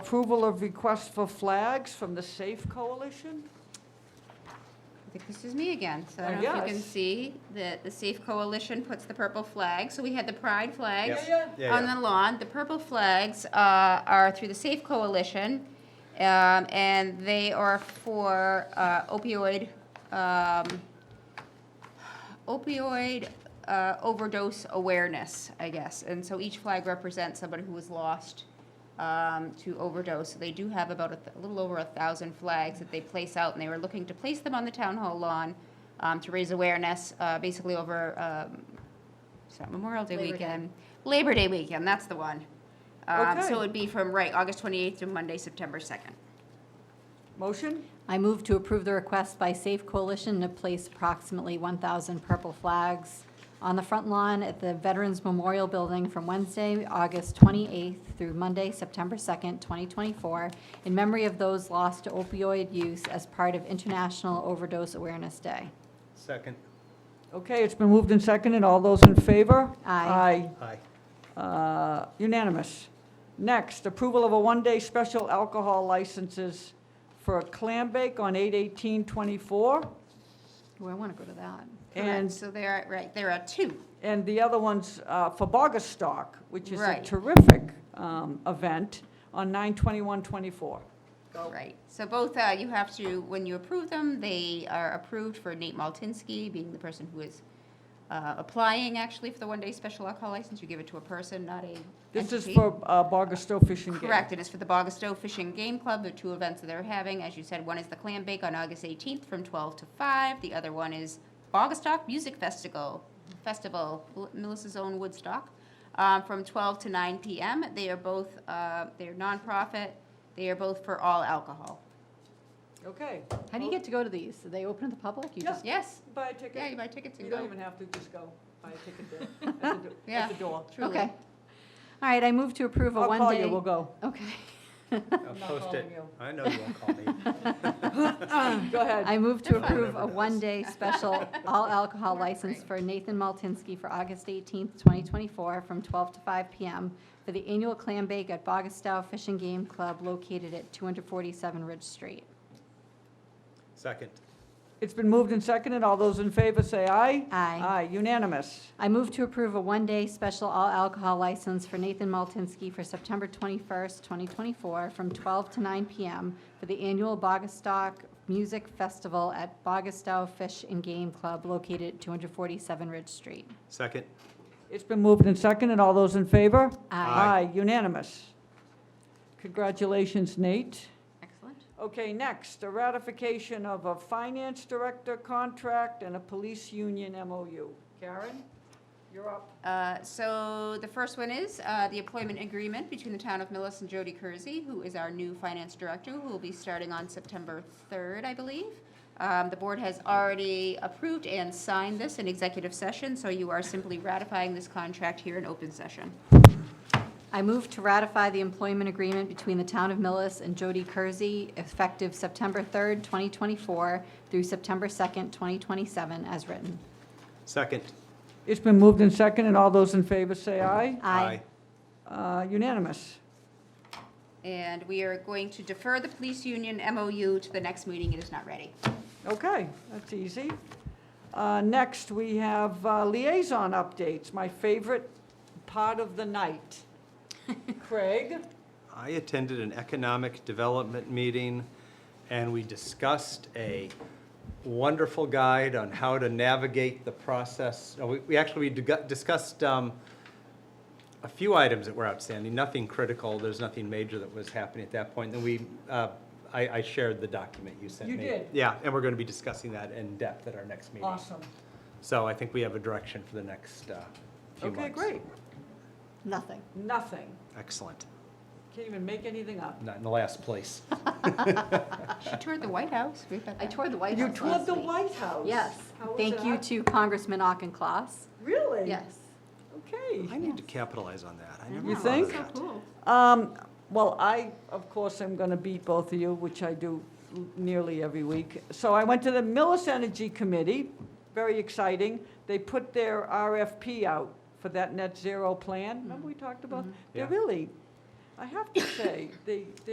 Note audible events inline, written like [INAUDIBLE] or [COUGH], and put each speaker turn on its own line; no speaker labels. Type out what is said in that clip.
Approval of request for flags from the Safe Coalition?
I think this is me again, so I
Oh,
don't know if you can
yes.
see that the Safe Coalition puts the purple flag, so we had the pride flags
Yeah,
yeah.
on
Yeah,
the lawn. The purple flags uh, are through the Safe Coalition, um, and they are for uh, opioid, um, opioid uh, overdose awareness, I guess. And so each flag represents somebody who was lost um, to overdose. So they do have about a, th- a little over a thousand flags that they place out, and they were looking to place them on the town hall lawn um, to raise awareness, uh, basically over um, it's not Memorial Day
Labor Day.
weekend, Labor Day weekend. That's the one. Um,
Okay.
So it would be from right August 28th to Monday, September 2nd.
Motion?
I move to approve the request by Safe Coalition to place approximately 1,000 purple flags on the front lawn at the Veterans Memorial Building from Wednesday, August 28th through Monday, September 2nd, 2024, in memory of those lost to opioid use as part of International Overdose Awareness Day.
Second,
Okay, it's been moved and seconded. All those in favor?
Aye.
[LAUGHS]
aye.
Aye. Uh, Unanimous. Next, approval of a one-day special alcohol licenses for clam bake on 8/18/24,
Ooh, I want to go to that.
and,
so there are right there are two.
and the other one's uh, for Bogastock, which is a
Right.
terrific um, event on 9/21/24.
Right, so both, uh, you have to, when you approve them, they are approved for Nate Maltinsky being the person who is uh, applying actually for the one-day special alcohol license. You give it to a person, not a
This is
entity.
for uh, Bogastow Fishing Game.
Correct, it is for the Bogastow Fishing Game Club, the two events that they're having. As you said, one is the clam bake on August 18th from 12 to 5. The other one is Bogastock Music Festival, Festival, Mel- Melissa's own Woodstock, um, from 12 to 9 PM. They are both, uh, they're nonprofit, they are both for all alcohol.
Okay.
How do you get to go to these? Do they open to the public? You
Yeah.
just-
Yes,
Buy a
yeah, you
ticket.
buy tickets and
You don't
go.
even have to, just go. Buy a ticket there, at the do-
Yeah.
at the door.
Truly.
Okay. All right, I move to approve a
I'll
one-day.
call you, we'll
[CLEARS THROAT]
go.
Okay.
I'll
not
post
calling
it.
you.
I know you won't call me.
[LAUGHS] Go ahead.
I move to
They're fine.
approve a
Whatever it is. [LAUGHS]
one-day special all alcohol license for Nathan Maltinsky for August 18th, 2024, from 12 to 5 p.m. for the annual clam bake at Bogastow Fishing Game Club located at 247 Ridge Street.
Second,
It's been moved and seconded. All those in favor say aye.
Aye.
Aye, unanimous.
I move to approve a one-day special all alcohol license for Nathan Maltinsky for September 21st, 2024, from 12 to 9 p.m. for the annual Bogastock Music Festival at Bogastow Fish and Game Club located at 247 Ridge Street.
second,
It's been moved and seconded. All those in favor?
Aye.
Aye.
Aye, unanimous. Congratulations, Nate.
Excellent.
Okay, next, a ratification of a finance director contract and a police union MOU. Karen, you're up.
Uh, So the first one is uh, the employment agreement between the town of Millis and Jody Kersey, who is our new finance director, who will be starting on September 3rd, I believe. Um, The board has already approved and signed this in executive session, so you are simply ratifying this contract here in open session.
I move to ratify the employment agreement between the Town of Millis and Jody Kersey effective September 3rd, 2024 through September 2nd, 2027, as written.
second.
It's been moved and seconded. All those in favor say aye.
Aye.
Uh, Unanimous.
And we are going to defer the police union MOU to the next meeting. It is not ready.
Okay, that's easy. Uh, Next, we have uh, liaison updates, my favorite part of the night.
[LAUGHS]
Craig?
I attended an economic development meeting, and we discussed a wonderful guide on how to navigate the process. Uh, We we actually dig- discussed um, a few items that were outstanding, nothing critical, there's nothing major that was happening at that point. Then we, uh, I I shared the document you sent
You
me.
did.
Yeah, and we're going to be discussing that in depth at our next meeting.
Awesome.
So I think we have a direction for the next uh, few months.
Okay, great.
Nothing.
Nothing.
Excellent.
Can't even make anything up.
Not in the last
[LAUGHS]
place.
She toured the White House. We've got
I
that.
toured the White
You
House
toured
last
the
week.
White House?
Yes.
How was
Thank you
that?
to Congressman Auchincloss.
Really?
Yes.
Okay.
I need to capitalize on that. I never
You
thought of
think?
that.
Cool.
Um, Well, I, of course, am going to beat both of you, which I do nearly every week. So I went to the Millis Energy Committee, very exciting. They put their RFP out for that net zero plan. Remember we talked about? They're
Yeah.
really, uh, I have to say, the, the